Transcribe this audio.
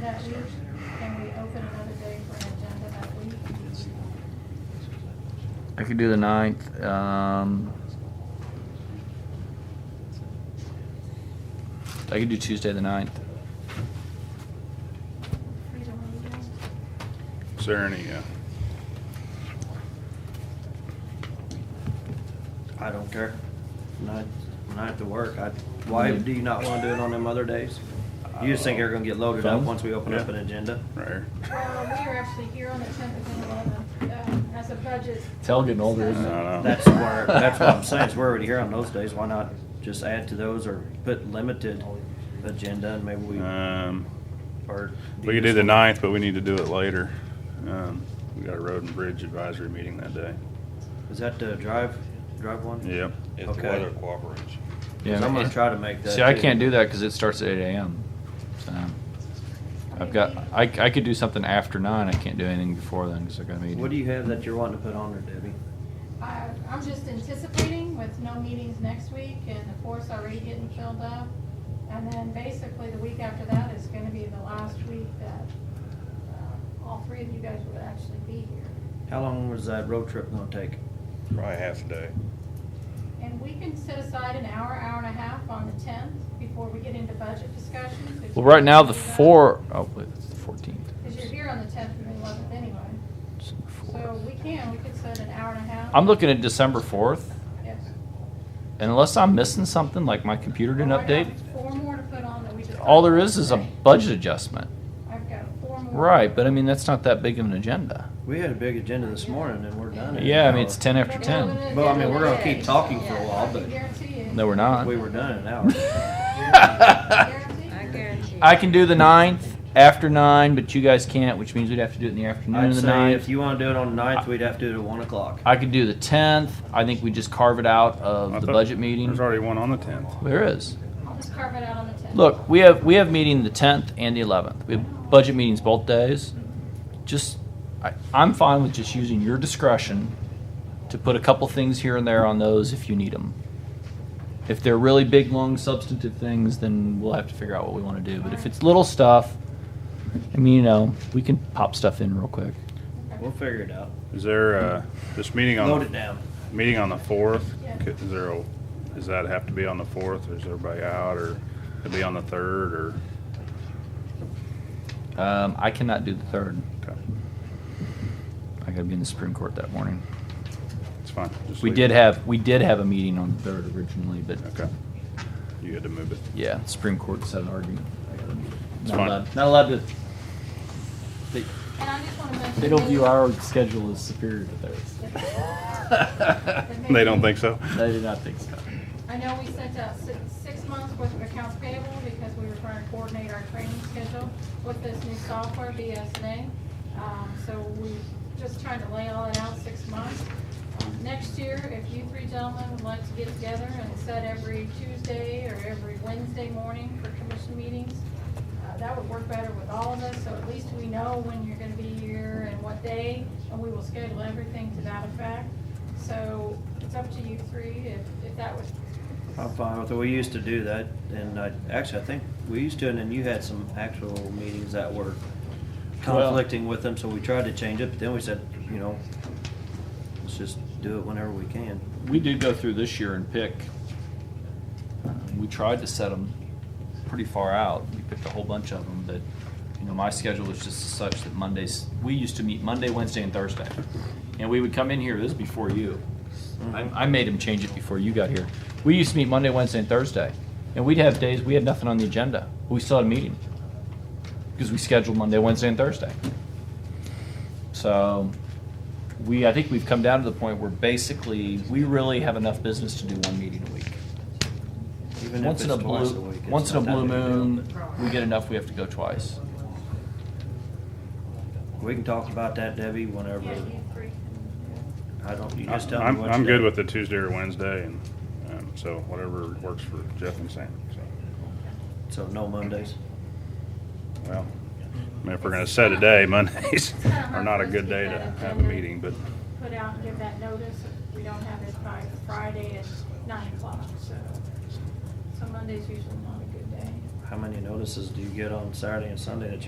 that week? Can we open another day for an agenda that week? I could do the ninth. Um, I could do Tuesday the ninth. Either one of you guys? Is there any, uh, I don't care. When I, when I have to work, I, why Mm-hmm. do you not wanna do it on them other days? You just think you're gonna get loaded up Phone? once we open up Uh, Yeah. an agenda? right here? Well, we are actually here on the tenth and eleventh, as a budget. Tell getting older, isn't I it? don't know. That's where, that's what I'm saying, is we're already here on those days, why not just add to those or put limited agenda and maybe we, Um, or. we could do the ninth, but we need to do it later. Um, we got a road and bridge advisory meeting that day. Is that the drive, drive one? Yep. If the Okay. weather cooperates. Yeah. i I'm gonna try to make that. See, I too. can't do that because it starts at eight a.m. So I've got. I, I could do something after nine. I can't do anything before then because I got a meeting. What do you have that you're wanting to put on there, Debbie? I, I'm just anticipating with no meetings next week and the fourth's already getting filled up. And then basically the week after that is gonna be the last week that, uh, all three of you guys would actually be here. How long was that road trip gonna take? Probably half a day. And we can set aside an hour, hour and a half on the tenth before we get into budget discussions. if Well, you right now the guys do that. four. Oh, wait, it's the fourteenth. Cause you're here on the tenth and the eleventh anyway. So we can, we could set an hour and a half. I'm looking at December fourth, Yes. and unless I'm missing something, like my computer didn't Well, I got update. Four more to put on that we just. All there is is a Okay. budget adjustment. I've got four more. Right, but I mean that's not that big of an agenda. We had a big agenda this morning and we're done. in an Yeah, I mean hour. it's ten after ten. Well, I mean, we're gonna keep talking for a while, but- I guarantee you. No, we're not. We were done in an hour. Guarantee you. I guarantee. I can do the ninth after nine, but you guys can't, which means we'd have to do it in the afternoon I'd of the say ninth. if you wanna do it on the ninth, we'd have to do it at one o'clock. I could do the tenth. I think we just carve it out I of the thought budget meeting. There's already one on the tenth. There is. I'll just carve it out on the tenth. Look, we have we have meeting the tenth and the eleventh. We have budget meetings both days. Just, I, I'm fine with just using your discretion to put a couple things here and there on those if you need them. If they're really big, long, substantive things, then we'll have to figure out what we want to do. But if it's little stuff, I mean, you know, we can pop stuff in real quick. We'll figure it out. Is there, uh, this meeting Load it on, down. meeting on the fourth? Yeah. Is there a, does that have to be on the fourth or is everybody out or it'd be on the third or? Um, I cannot do the third. okay, I got to be in the Supreme Court that morning. It's fine. Just We leave did it. have we did have a meeting on the third originally, but Okay. You had to move it. Yeah, Supreme Court set an argument. It's Not fine. allowed, not allowed to, they, And I just wanna mention. they don't view our schedule as superior to theirs. They don't think so? They do not think so. I know we sent out six, six months worth of accounts payable because we were trying to coordinate our training schedule with this new software, BSNA. Um, so we just trying to lay all that out six months. Um, Next year, if you three gentlemen would like to get together and set every Tuesday or every Wednesday morning for commission meetings, uh, that would work better with all of us, so at least we know when you're gonna be here and what day, and we will schedule everything to that effect. So it's up to you three, if, if that was, I'm fine with it. We used to do that and I, actually, I think we used to, and then you had some actual meetings that were Well- conflicting with them, so we tried to change it, but then we said, you know, let's just do it whenever we can. We did go through this year and pick, um, we tried to set them pretty far out. We picked a whole bunch of them, but, you know, my schedule was just such that Mondays, we used to meet Monday, Wednesday, and Thursday. And we would come in here, this is before you. I, Mhm. I made him change it before you got here. We used to meet Monday, Wednesday, and Thursday, and we'd have days we had nothing on the agenda. We still had a meeting because we scheduled Monday, Wednesday, and Thursday. So we, I think we've come down to the point where basically we really have enough business to do one meeting a week. Even if once in it's a twice blue, week, it's once in a not that blue big a deal. moon, we get enough. We have to go twice. We can talk about that, Debbie, whenever. yeah, you three can, I don't, you just tell me Uh, I'm, what. I'm you good do. with the Tuesday or Wednesday and, um, so whatever works for Jeff and Sam, so. So no Mondays. Well, I mean, if we're gonna set a day, Mondays It's kinda are hard not for a us good to day get to that have a agenda. meeting, but put out and give that notice, we don't have it by Friday at nine o'clock, so. So Monday's usually not a good day. How many notices do you get on Saturday and Sunday that you